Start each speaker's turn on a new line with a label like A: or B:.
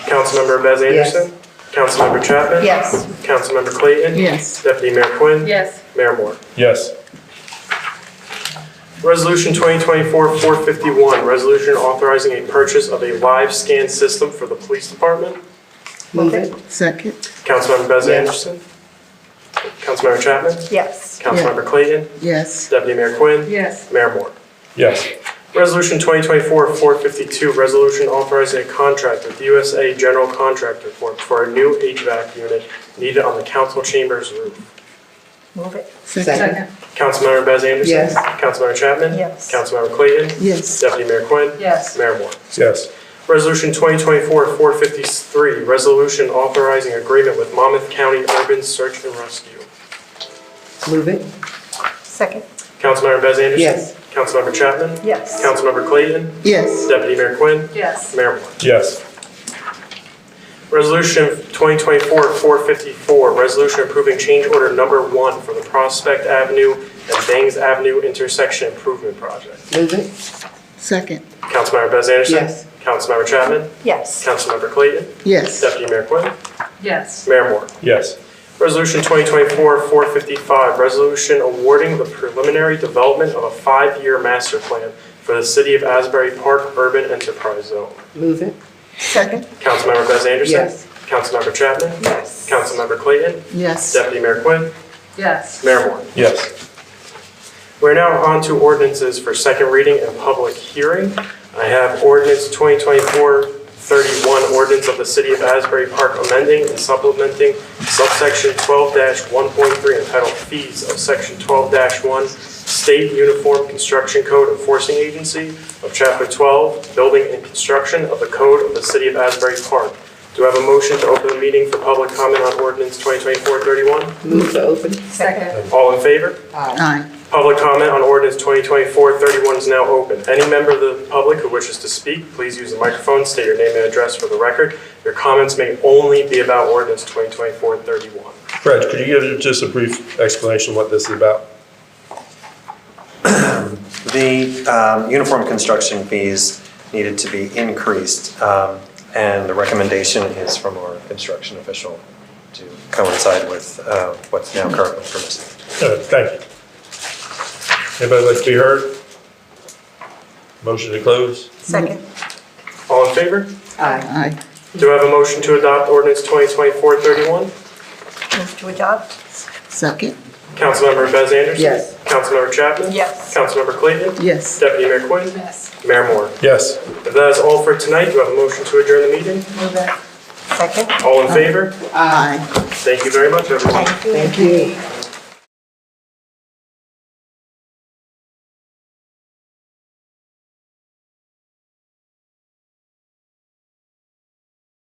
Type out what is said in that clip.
A: Councilmember Bez
B: Yes.
A: Anderson. Councilmember Chapman.
C: Yes.
A: Councilmember Clayton.
D: Yes.
A: Deputy Mayor Quinn.
C: Yes.
A: Mayor Moore.
E: Yes.
A: Resolution 2024-451, resolution authorizing a purchase of a live scan system for the police department.
B: Move it.
D: Second.
A: Councilmember Bez
B: Yes.
A: Anderson. Councilmember Chapman.
C: Yes.
A: Councilmember Clayton.
D: Yes.
A: Deputy Mayor Quinn.
C: Yes.
A: Mayor Moore.
E: Yes.
A: Resolution 2024-452, resolution authorizing a contract with USA General Contractor for for a new HVAC unit needed on the council chambers roof.
C: Move it.
D: Second.
A: Councilmember Bez Anderson.
B: Yes.
A: Councilmember Chapman.
C: Yes.
A: Councilmember Clayton.
D: Yes.
A: Deputy Mayor Quinn.
C: Yes.
A: Mayor Moore.
E: Yes.
A: Resolution 2024-453, resolution authorizing agreement with Monmouth County Urban Search and Rescue.
B: Move it.
C: Second.
A: Councilmember Bez Anderson.
B: Yes.
A: Councilmember Chapman.
C: Yes.
A: Councilmember Clayton.
D: Yes.
A: Deputy Mayor Quinn.
C: Yes.
A: Mayor Moore.
E: Yes.
A: Resolution 2024-454, resolution approving change order number one for the Prospect Avenue and Bangs Avenue intersection improvement project.
B: Move it.
D: Second.
A: Councilmember Bez Anderson.
B: Yes.
A: Councilmember Chapman.
C: Yes.
A: Councilmember Clayton.
D: Yes.
A: Deputy Mayor Quinn.
C: Yes.
A: Mayor Moore.
E: Yes.
A: Resolution 2024-455, resolution awarding the preliminary development of a five-year master plan for the City of Asbury Park Urban Enterprise Zone.
B: Move it.
D: Second.
A: Councilmember Bez Anderson.
B: Yes.
A: Councilmember Chapman.
C: Yes.
A: Councilmember Clayton.
D: Yes.
A: Deputy Mayor Quinn.
C: Yes.
A: Mayor Moore.
E: Yes.
A: We're now on to ordinances for second reading and public hearing. I have ordinance 2024-31, ordinance of the City of Asbury Park amending and supplementing subsection 12-1.3 entitled Fees of Section 12-1 State Uniform Construction Code Enforcing Agency of Chapter 12, Building and Construction of the Code of the City of Asbury Park. Do I have a motion to open the meeting for public comment on ordinance 2024-31?
B: Move to open.
C: Second.
A: All in favor?
B: Aye.
D: Aye.
A: Public comment on ordinance 2024-31 is now open. Any member of the public who wishes to speak, please use the microphone, state your name and address for the record. Your comments may only be about ordinance 2024-31.
E: Fred, could you give just a brief explanation of what this is about?
F: The um, uniform construction fees needed to be increased, um, and the recommendation is from our construction official to coincide with uh, what's now currently permissible.
E: Uh, Thank you. Anybody like to be heard? Motion to close?
C: Second.
A: All in favor?
B: Aye.
D: Aye.
A: Do I have a motion to adopt ordinance 2024-31?
C: Move to adopt?
D: Second.
A: Councilmember Bez Anderson?
B: Yes.
A: Councilmember Chapman?
C: Yes.
A: Councilmember Clayton?
D: Yes.
A: Deputy Mayor Quinn?
C: Yes.
A: Mayor Moore?
E: Yes.
A: If that is all for tonight, do I have a motion to adjourn the meeting?
C: Move it. Second.
A: All in favor?
D: Aye.
A: Thank you very much, everyone.
C: Thank you.
B: Thank you.